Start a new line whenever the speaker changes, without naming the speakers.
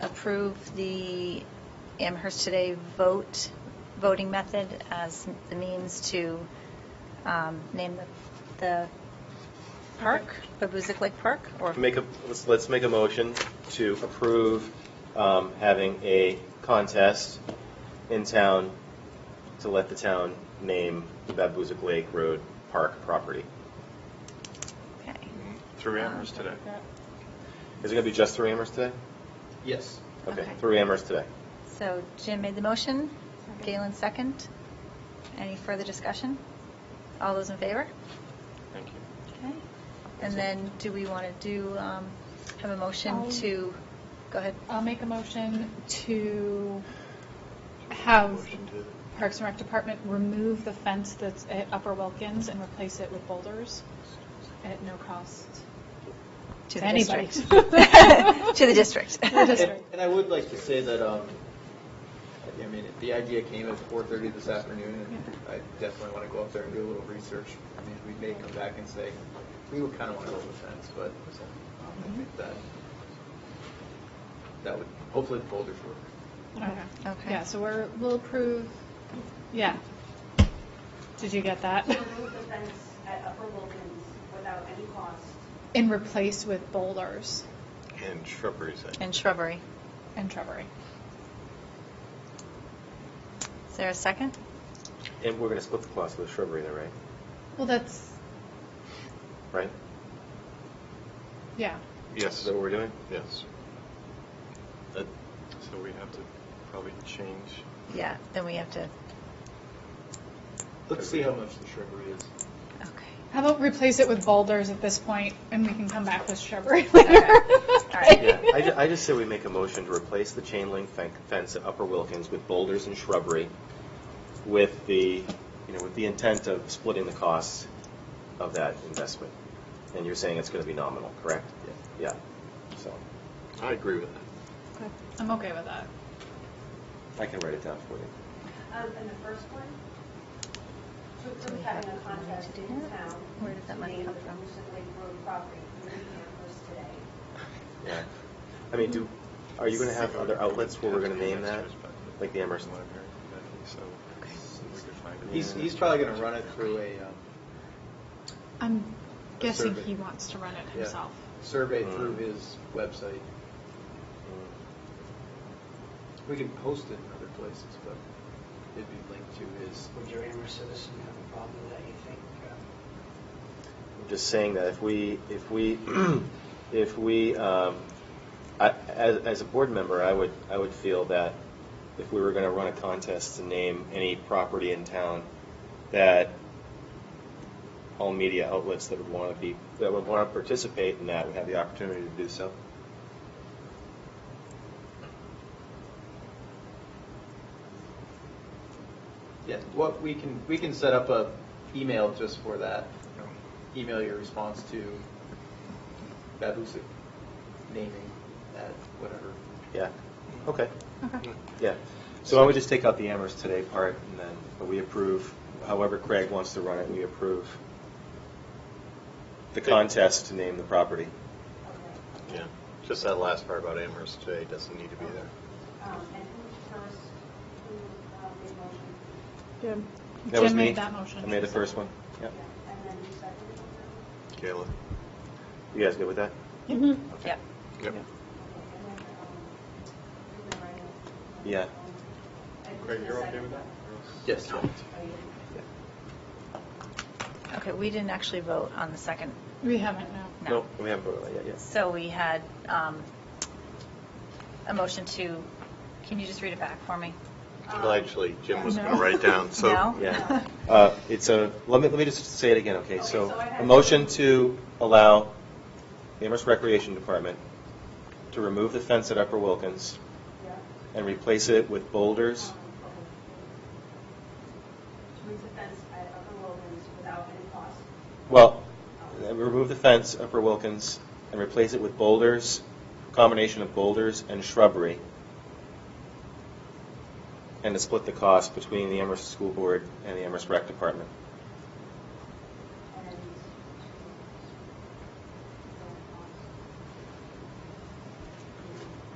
approve the Amherst Today vote, voting method as the means to um, name the, the park, Babuzik Lake Park, or?
Make a, let's, let's make a motion to approve um, having a contest in town to let the town name the Babuzik Lake Road Park property.
Okay. Um,
Through Amherst today.
Is it going to be just through Amherst today?
Yes.
Okay,
Okay.
through Amherst today.
So Jim made the motion, Galen second. Any further discussion? All those in favor?
Thank you.
Okay. And then do we want to do, um, have a motion
Um,
to, go ahead.
I'll make a motion to have
Motion to-
Parks and Rec Department remove the fence that's at Upper Wilkins and replace it with boulders at no cost
To
to
the
anybody.
district. To the district.
To the
And
district.
and I would like to say that, um, I mean, the idea came at 4:30 this afternoon, and I definitely want to go up there and do a little research. I mean, we may come back and say, we would kind of want to build a fence, but um,
Mm-hmm.
I think that, that would, hopefully the boulders work.
Okay.
Okay.
Yeah, so we're, we'll approve, yeah. Did you get that?
To remove the fence at Upper Wilkins without any cost.
And replace with boulders
And shrubbery, I think.
And shrubbery.
and shrubbery.
Is there a second?
And we're going to split the cost of the shrubbery there, right?
Well, that's,
Right?
yeah.
Is
Yes,
that what we're doing?
yes.
That-
So we have to probably change.
Yeah, then we have to,
Let's see how much the shrubbery is.
okay.
How about replace it with boulders at this point, and we can come back with shrubbery later?
right.
Yeah, I, ju- I just say we make a motion to replace the chain link fen- fence at Upper Wilkins with boulders and shrubbery with the, you know, with the intent of splitting the costs of that investment. And you're saying it's going to be nominal, correct? Yeah, so,
I agree with that.
I'm okay with that.
I can write it down for you.
Um, And the first one, to
Do we
approve
have
having
the
a
money
contest
to do
in
that?
town.
Where did that money
named
come
the
from?
Moosoc Lake Road property, in Amherst today.
Yeah. I mean, do, are you going to have other outlets where we're going to name that? Like the Amherst?
Library, I think so. So we could find it.
He's, he's probably going to run it through a um,
I'm
A
guessing
survey.
he wants to run it
yeah,
himself.
survey through his website. We can post it in other places, but it'd be linked to his
Would your Amherst citizen have a problem with that, you think? uh,
I'm just saying that if we, if we, if we, um, I, as, as a board member, I would, I would feel that if we were going to run a contest to name any property in town, that all media outlets that would want to be, that would want to participate in that would have the opportunity to do so.
Yeah, what we can, we can set up a email just for that. Email your response to Babusick naming at whatever.
Yeah, okay,
Okay.
yeah. So I would just take out the Amherst Today part, and then but we approve, however Craig wants to run it, we approve the contest to name the property.
Okay.
Yeah, just that last part about Amherst today doesn't need to be there.
Um, And who's first, who uh, made
Jim.
motion?
That was me.
made that motion.
I made the first one. Yep.
Yeah. And then who seconded it?
Kayla?
You guys good with that?
Mhm.
Yep.
Okay,
Yep.
and then, um, who the right-
Yeah.
And who's
Craig,
the
you're okay
second
with that?
one?
Yes.
Are you-
Okay, we didn't actually vote on the second,
We haven't, no.
No.
Nope, We haven't voted on that yet, yes.
so we had um, a motion to, can you just read it back for me?
Well, actually, Jim was going
No.
to write down, so.
No?
Yeah. Uh, It's a, let me, let me just say it again, okay?
Okay,
So
so I had-
a motion to allow the Amherst Recreation Department to remove the fence at Upper Wilkins
Yeah.
and replace it with boulders.
To Remove the fence at Upper Wilkins without any cost.
Well, uh, remove the fence, Upper Wilkins, and replace it with boulders, combination of boulders and shrubbery. And to split the cost between the Amherst School Board and the Amherst Rec Department.